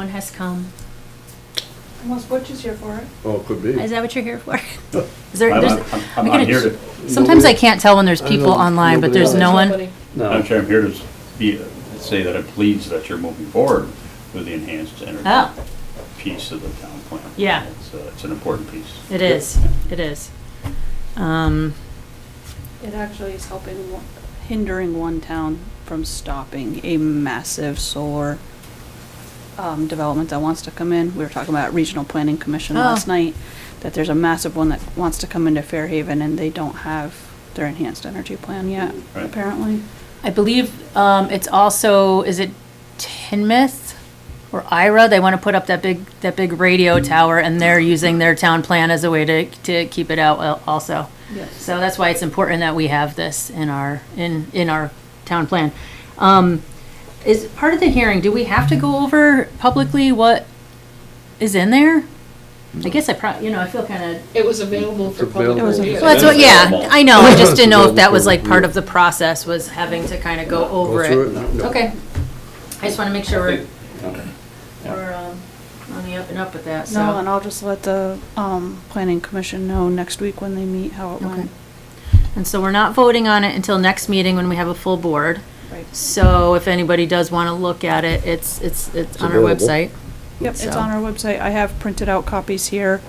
One has come. Almost butchers here for it. Oh, it could be. Is that what you're here for? No. Is there, I'm- there's, I'm- I I'm gotta- I'm here to, sometimes I Nobody- can't tell when there's I people know online, but nobody there's else. no one. Nobody. Madam No, Chair, I'm here to be, say that I'm pleased that you're moving forward with the enhanced Oh. energy piece of the town plan. Yeah. It's, uh, it's an important piece. It is, it is. Um, It actually is helping, one- hindering one town from stopping a massive solar um, development that wants to come in. We were talking about Regional Planning Commission Oh. last night, that there's a massive one that wants to come into Fairhaven and they don't have their enhanced energy plan yet, Right. apparently. I believe, um, it's also, is it Tinmouth or Ira? They want to put up that big, that big radio tower and they're using their town plan as a way to, to keep it out al- also. Yes. So that's why it's important that we have this in our, in, in our town plan. Um, is part of the hearing, do we have to go over publicly what is in there? I guess I prob, you know, I feel kind of, It was available for It's available. public It was review. well, that's what, yeah, I know, I just didn't know if that was like part Yeah. of the process, was having to kind of go go over through it. No. Okay, I just want to make sure we're, Okay. Yeah. we're, um, on the up and up with that, so. No, and I'll just let the um, Planning Commission know next week when they meet how it Okay. went. And so we're not voting on it until next meeting when we have a full board. Right. So if anybody does want to look at it, it's, it's, it's It's on our available. website. Yep, it's So- on our website. I have printed out copies here.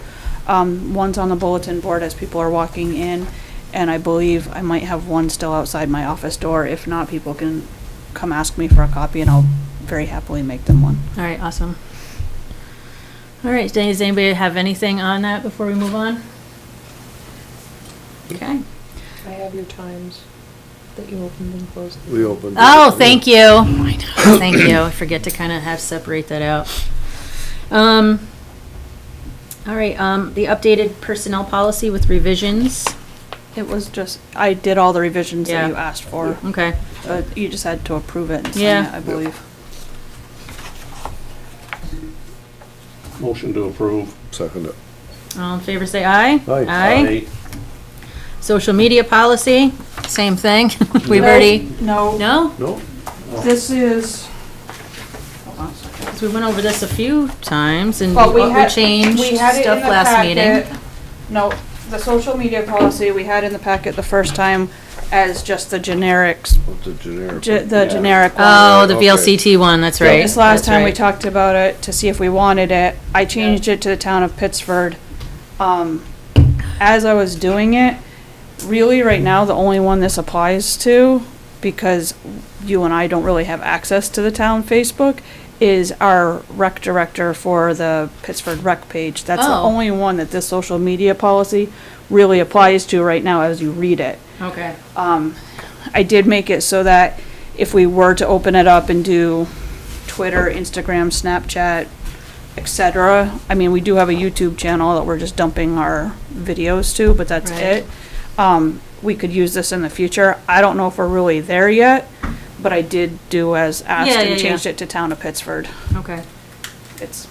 Um, one's on the bulletin board as people are walking in, and I believe I might have one still outside my office door. If not, people can come ask me for a copy, and I'll very happily make them one. All right, awesome. All right, does anybody have anything on that before we move on? Okay. I have your times that you opened and closed. We opened. Oh, thank you. I know, Thank you. I forget to kind of have, separate that out. Um, all right, um, the updated personnel policy with revisions. It was just, I did all the revisions Yeah. that you asked for, Okay. but you just had to approve it and sign Yeah. it, I believe. Motion to approve. Second it. All in favor, say aye. Aye. Aye. Social media policy, same thing. We've already, No, no? No? this is, hold on a second. 'Cause we went over this a few times and Well, Mm-hmm. what we we had, changed we had it in stuff the last meeting. packet. No, the social media policy we had in the packet the first time as just the generics, What's the generic? ge- the Yeah. generic one. Oh, the Okay. VLCT one, that's right. This last that's time we right. talked about it to see if we wanted it. I changed it to the town of Pittsford. Um, as I was doing it, really right now, the only one this applies to, because you and I don't really have access to the town Facebook, is our rec director for the Pittsford rec page. That's the Oh. only one that this social media policy really applies to right now as you read it. Okay, Um, I did make it so that if we were to open it up and do Twitter, Instagram, Snapchat, et cetera, I mean, we do have a YouTube channel that we're just dumping our videos to, but that's Right. it. Um, we could use this in the future. I don't know if we're really there yet, but I did do as asked Yeah, yeah, and yeah. changed it to Town of Pittsford. okay. It's,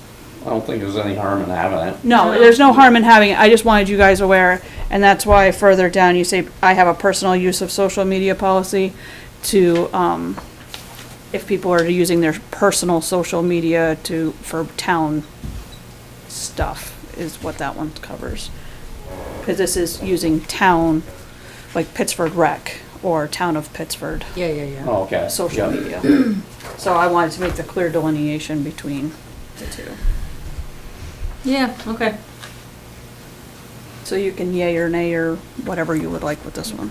I don't think there's any harm in having it. no, there's no harm in having it. I just wanted you guys aware, and that's why further down you say, I have a personal use of social media policy to, um, if people are using their personal social media to, for town stuff, is what that one covers. Cause this is using town, like Pittsford Rec, or Town of Pittsford, Yeah, yeah, yeah. Oh, okay. social Yeah. media. So I wanted to make the clear delineation between the two. Yeah, okay. So you can yay or nay or whatever you would like with this one.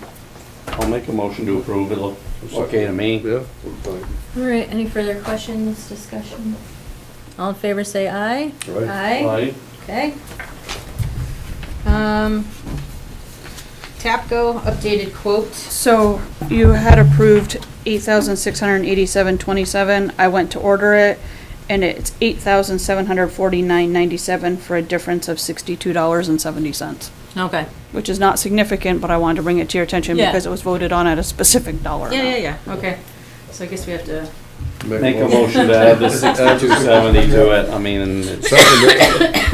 I'll make a motion to approve. It looks okay to me. Yeah, we're fine. All right, any further questions, discussion? All in favor, say aye. Aye. Aye. Okay. Um, Tapco updated quote. So you had approved eight thousand six hundred and eighty-seven twenty-seven. I went to order it and it's eight thousand seven hundred forty-nine ninety-seven for a difference of sixty-two dollars and seventy cents. Okay. Which is not significant, but I wanted to bring it to your attention Yeah. because it was voted on at a specific dollar Yeah, yeah, amount. yeah, okay. So I guess we have to, Make a motion to add the sixty-two seventy to it. I mean, Second it.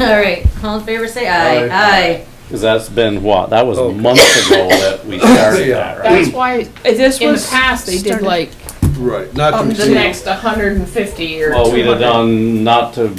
all right, all in favor, say aye. Aye. because that's been what? That was Okay. months ago that we started that, right? That's why, Uh, This in the was past, they did started- like Right, not to of Oh, the exceed. next hundred and fifty or two Well, hundred. we'd have done not to